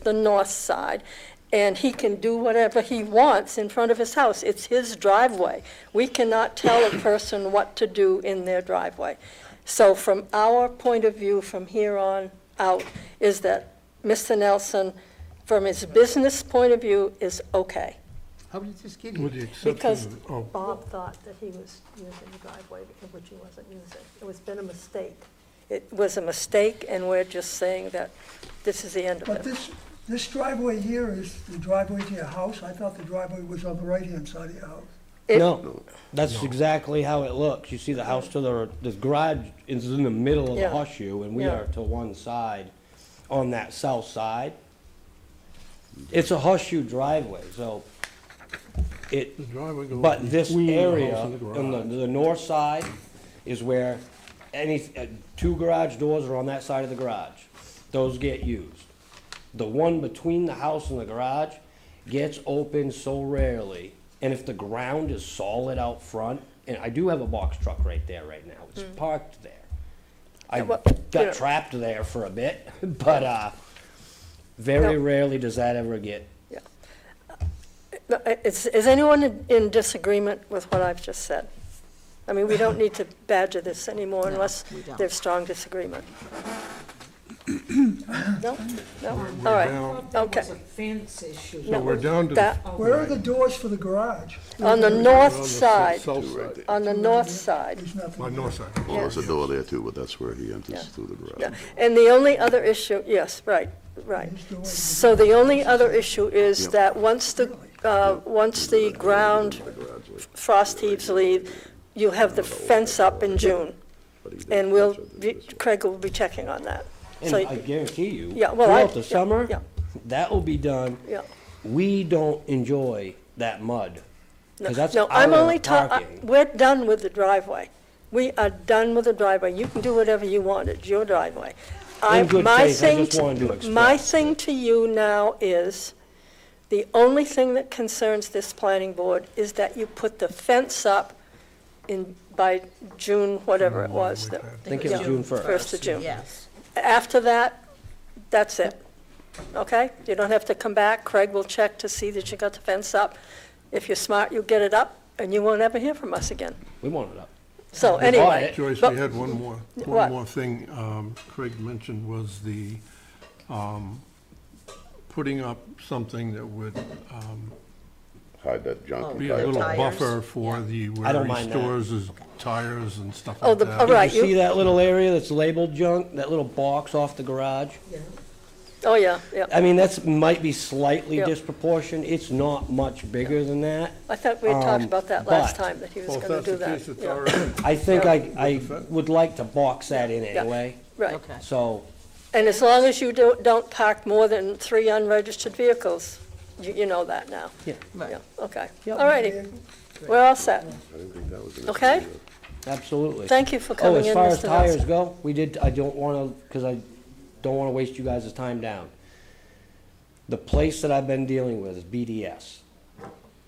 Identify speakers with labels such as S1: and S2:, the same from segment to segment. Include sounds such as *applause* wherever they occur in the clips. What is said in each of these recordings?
S1: the north side, and he can do whatever he wants in front of his house. It's his driveway. We cannot tell a person what to do in their driveway. So from our point of view, from here on out, is that Mr. Nelson, from his business point of view, is okay.
S2: How did this get
S3: With
S2: here?
S3: the exception
S1: Because
S3: of, oh,
S1: Bob thought that he was using the driveway, which he wasn't using. It was been a mistake. It was a mistake, and we're just saying that this is the end of
S4: But
S1: it.
S4: this, this driveway here is the driveway to your house? I thought the driveway was on the right-hand side of your house.
S1: It-
S5: No, that's exactly how it looks. You see the house to the, the garage is in the middle of the
S1: Yeah.
S5: horseshoe, and we
S1: Yeah.
S5: are to one side, on that south side. It's a horseshoe driveway, so it,
S3: the driveway goes
S5: but this
S3: between the
S5: area
S3: house and the
S5: on the,
S3: garage.
S5: the north side is where any, uh, two garage doors are on that side of the garage. Those get used. The one between the house and the garage gets opened so rarely. And if the ground is solid out front, and I do have a box truck right there right now, it's parked there. I
S1: Yeah, Hmm. well, you know-
S5: got trapped there for a bit, *laughs* but, uh, very
S1: No.
S5: rarely does that ever get
S1: Yeah. No, i- Is, is anyone in- in disagreement with what I've just said? I mean, we don't need to badger this anymore
S6: *laughs* No,
S1: unless
S6: we don't.
S1: there's strong
S3: *coughs*
S1: disagreement. No? No?
S3: We're
S1: All right.
S3: down-
S6: There was
S1: Okay.
S6: a fence issue. Oh,
S3: So we're down to. the-
S1: That-
S4: Where are the doors for the garage?
S1: On the
S3: we're on
S1: north
S3: the
S1: side,
S3: south
S7: Right
S3: side.
S7: there.
S1: on the north side.
S4: There's
S3: My
S4: nothing.
S3: north side.
S7: Well, there's
S1: Yeah.
S7: a door there too, but that's where he
S1: Yeah.
S7: enters through the
S1: Yeah,
S7: garage.
S1: and the only other issue, yes, right, right.
S4: There's the way-
S1: So the only other issue is
S7: Yep.
S1: that once the, uh, once the ground
S7: The garage was-
S1: frost heaves leave, you have the fence up in June,
S7: but he did
S1: and we'll,
S7: touch it
S1: be-
S7: this way.
S1: Craig will be checking on that.
S5: And
S1: So-
S5: I guarantee you,
S1: Yeah, well, I-
S5: throughout the
S1: yeah,
S5: summer,
S1: yeah.
S5: that will be done.
S1: Yeah.
S5: We don't enjoy that mud.
S1: No,
S5: Because that's
S1: No, I'm only
S5: our
S1: talking,
S5: parking.
S1: we're done with the driveway. We are done with the driveway. You can do whatever you want, it's your driveway. I-
S5: In good
S1: my
S5: faith, I
S1: thing
S5: just wanted to
S1: My
S5: express
S1: thing to you now is, the only thing that concerns this planning board is that you put the fence up in, by June, whatever
S5: Mm,
S1: it was. that-
S5: I think it was
S1: yeah,
S5: June first.
S1: First of June.
S6: Yes.
S1: After that, that's it. Okay? You don't have to come back. Craig will check to see that you got the fence up. If you're smart, you'll get it up, and you won't ever hear from us again.
S5: We want it up.
S1: So
S5: We bought
S1: anyway,
S5: it.
S3: Joyce,
S1: But-
S3: we had one more,
S1: What?
S3: one more thing um, Craig mentioned was the, um, putting up something that would um,
S7: Hide that junk.
S3: be
S7: and
S3: a
S7: hide
S3: little
S7: it.
S3: buffer for the,
S5: I
S3: where
S5: don't
S3: he
S5: mind that.
S3: stores his tires and stuff
S1: Oh,
S3: like
S1: the-
S3: that.
S1: all
S5: Did
S1: Right,
S5: you see
S1: you-
S5: that little area that's labeled junk, that little box off the garage?
S1: oh, yeah, yeah.
S5: I mean, that's, might be slightly
S1: Yeah.
S5: disproportionate. It's not much bigger than that.
S1: I thought we had talked
S5: um,
S1: about that last
S5: but-
S1: time, that he was
S3: Well, if
S1: gonna
S3: that's
S1: do
S3: the
S1: that.
S3: case, it's
S1: Yeah,
S3: all right.
S5: I think
S1: Yeah.
S5: I, I would like to box that in
S1: Yeah.
S5: anyway.
S1: Right.
S6: Okay.
S5: So,
S1: And as long as you don't, don't park more than three unregistered vehicles, you, you know that now.
S5: yeah,
S6: Right.
S1: Yeah, okay. All righty. We're all set.
S7: I didn't think that was an
S1: Okay.
S7: issue.
S5: absolutely.
S1: Thank you for
S5: Oh,
S1: coming
S5: as
S1: in,
S5: far as
S1: Mr.
S5: tires
S1: Nelson.
S5: go, we did, I don't wanna, cause I don't wanna waste you guys' time down. The place that I've been dealing with is BDS.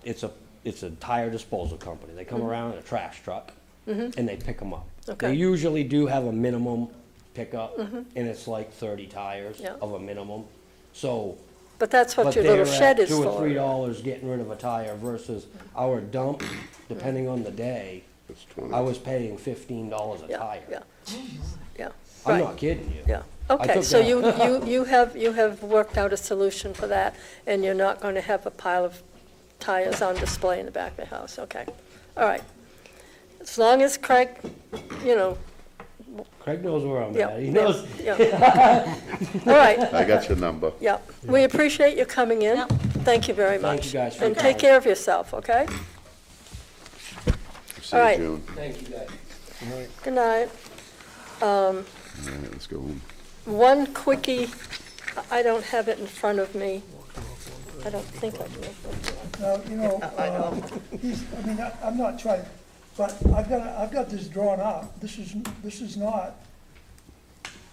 S5: It's a, it's a tire disposal company. They come around in a trash truck and they pick them up.
S1: Mm-hmm. Okay. Mm-hmm.
S5: They usually do have a minimum pickup and it's like thirty tires
S1: Yeah.
S5: of a minimum. So,
S1: But that's what
S5: but
S1: your little
S5: they're
S1: shed
S5: at
S1: is
S5: two or three
S1: for.
S5: dollars getting rid of a tire versus our dump, depending on the day,
S7: It's 20.
S5: I was paying fifteen dollars a
S1: Yeah,
S5: tire.
S1: yeah. Yeah,
S5: I'm
S1: right.
S5: not kidding you.
S1: Yeah,
S5: I
S1: okay,
S5: took
S1: so
S5: that.
S1: you, you, you have, you have worked out a solution for that, and you're not going to have a pile of tires on display in the back of the house, okay. All right. As long as Craig, you know,
S5: *laughs* Craig knows where I'm
S1: yeah.
S5: at. He knows.
S1: yeah,
S5: *laughs*
S1: yeah. All right,
S7: I got your number.
S1: yeah, we appreciate you coming in.
S6: Yep.
S1: Thank you very much.
S5: Thank you guys for
S1: And
S5: your
S1: take
S5: time.
S1: care of yourself, okay?
S7: See
S1: All
S7: you
S1: right.
S7: June.
S5: Thank you, guys.
S1: Good night.
S7: All right, let's go home.
S1: One quickie, I I don't have it in front of me. I don't think I do.
S4: Now, you know, uh, he's, I mean, I- I'm not trying, but I've got, I've got this drawn up. This is, this is not,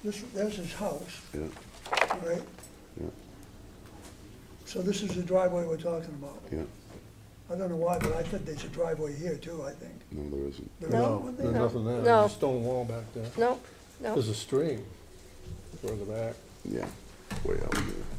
S4: this, there's his house,
S7: Yeah.
S4: right? So this is the driveway we're talking about.
S7: Yeah.
S4: I don't know why, but I think there's a driveway here too, I think.
S7: No, there isn't.
S4: There isn't
S3: No,
S4: one there?
S3: there's nothing there.
S1: No.
S3: There's a stone wall back there.
S1: No, no.
S3: There's a stream further back.
S7: Yeah. Way out there.